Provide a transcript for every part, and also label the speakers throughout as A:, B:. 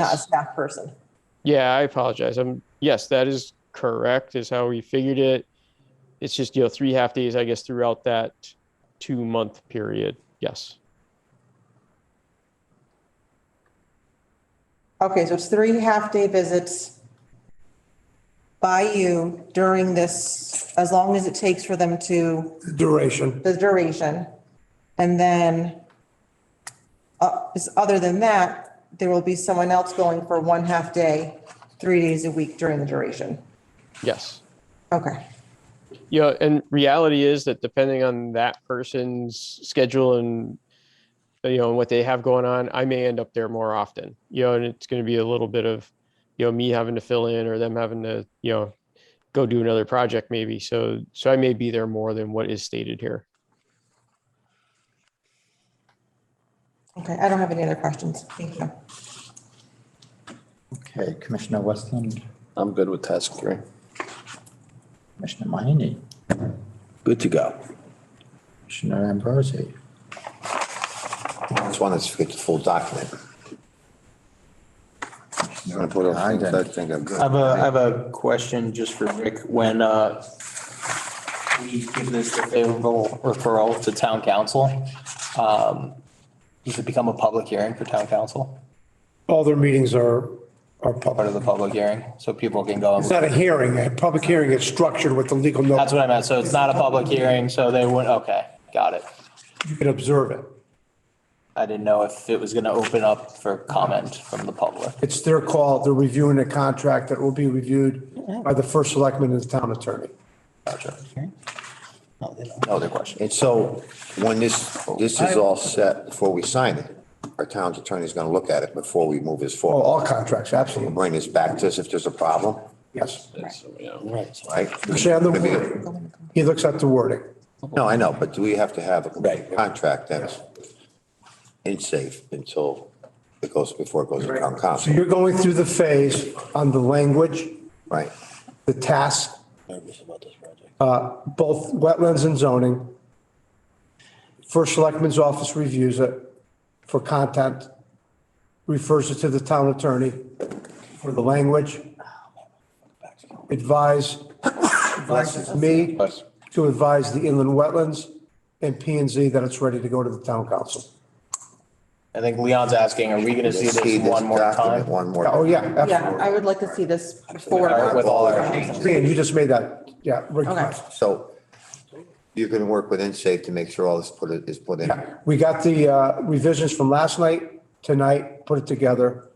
A: not a staff person.
B: Yeah, I apologize. I'm, yes, that is correct, is how we figured it. It's just, you know, three half days, I guess, throughout that two month period. Yes.
A: Okay, so it's three half-day visits by you during this, as long as it takes for them to,
C: duration.
A: the duration. And then, uh, is- other than that, there will be someone else going for one half-day, three days a week during the duration.
B: Yes.
A: Okay,
B: Yeah, and reality is that depending on that person's schedule and you know what they have going on, I may end up there more often. You know, and it's going to be a little bit of you know me having to fill in or them having to you know go do another project maybe. So so I may be there more than what is stated here.
A: okay, I don't have any other questions. Thank you.
D: Okay, Commissioner Westland,
E: I'm good with task three.
D: Commissioner Mahoney,
E: Good to go.
D: Commissioner Ambrosi.
E: Just wanted to get the full document. I'm gonna put up things I think are
F: I
E: good.
F: have a, I have a question just for Rick. When uh, we give this a favorable referral to town council, um, does it become a public hearing for town council?
C: All their meetings are, are
F: Part of
C: public.
F: the public hearing, so people can go. and-
C: It's not a hearing. A public hearing is structured with the legal
F: That's
C: notice.
F: what I meant. So it's not a public hearing, so they wouldn't, okay, got it.
C: You can observe it.
F: I didn't know if it was going to open up for comment from the public.
C: It's their call. They're reviewing a contract that will be reviewed by the first selectman and the town attorney.
F: Gotcha. No other question.
E: And so when this, this is all set, before we sign it, our town's attorney's gonna look at it before we move this
C: Oh,
E: forward.
C: all contracts, absolutely.
E: Bring this back to us if there's a problem,
C: Yes.
E: right?
C: Actually, on the wording, he looks at the wording.
E: No, I know, but do we have to have a contract that's in safe until it goes, before it goes to town
C: So
E: council,
C: you're going through the phase on the language,
E: right?
C: the task, uh, both wetlands and zoning. First Selectman's Office reviews it for content, refers it to the town attorney for the language. Advise, advises me to advise the inland wetlands and P and Z that it's ready to go to the town council.
F: I think Leon's asking, are we going to see
E: See
F: this
E: this
F: one more
E: document
F: time?
E: One more.
C: Oh, yeah,
A: Yeah,
C: absolutely.
A: I would like to see this before.
F: Or With all our changes?
C: Dan, you just made that, yeah, request.
E: So you're gonna work with NSAFE to make sure all this put, is put in.
C: We got the uh, revisions from last night, tonight, put it together.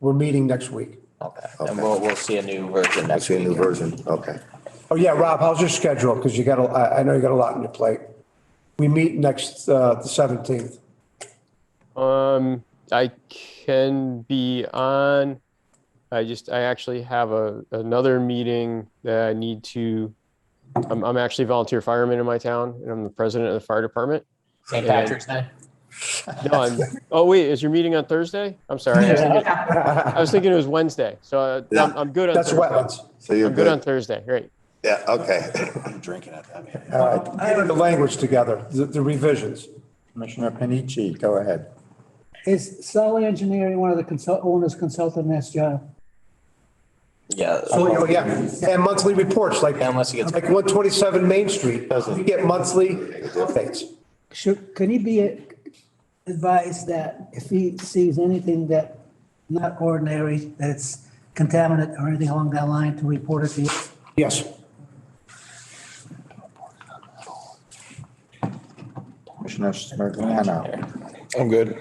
C: We're meeting next week.
F: Okay, and we'll, we'll see a new version next
E: See a
F: week.
E: new version, okay.
C: Oh, yeah, Rob, how's your schedule? Because you got, a- I I know you got a lot on your plate. We meet next, uh, the 17th.
B: Um, I can be on. I just I actually have a another meeting that I need to. I'm I'm actually a volunteer fireman in my town, and I'm the president of the fire department.
F: St. Patrick's Day?
B: No, I'm, oh wait, is your meeting on Thursday? I'm sorry. I was thinking, I was thinking it was Wednesday. So uh,
E: Yeah.
B: I'm, I'm good on
C: That's
B: Thursday.
C: wetlands.
E: So you're
B: I'm good on
E: good,
B: Thursday. Great.
E: yeah, okay.
C: Uh, Getting the language together, the the revisions.
D: Commissioner Panici, go ahead.
G: Is Sully Engineering one of the consult, owners consulting this job?
F: Yeah.
C: Oh, yeah, and monthly reports, like, like
F: Unless he gets,
C: 127 Main Street. We get monthly updates.
G: Should, can he be advised that if he sees anything that not ordinary, that it's contaminant or anything along that line, to report it to you?
C: Yes.
D: Commissioner Smirgliano.
H: I'm good.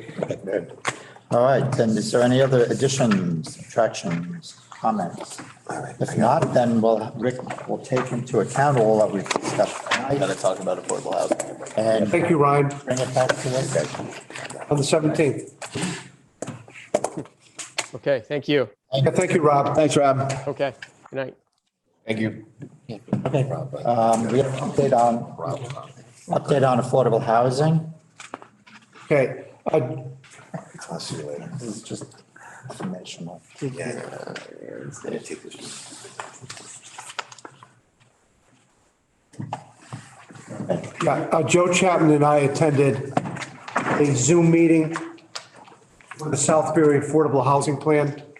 D: Good. All right, then is there any other additions, subtractions, comments? If not, then we'll, Rick will take into account all that we've discussed
F: gotta
D: tonight
F: talk about affordable housing.
D: and bring
C: Thank you, Ryan,
D: it back to us.
C: on the 17th.
B: Okay. Thank you.
C: Yeah, Thank you, Rob.
H: Thanks, Rob.
B: Okay. Good night.
H: Thank you.
D: Um, we have an update on, update on affordable housing.
C: Okay, uh,
E: I'll see you later.
D: This is just informational.
C: Yeah, uh, Joe Chapman and I attended a Zoom meeting for the Southbury Affordable Housing Plan.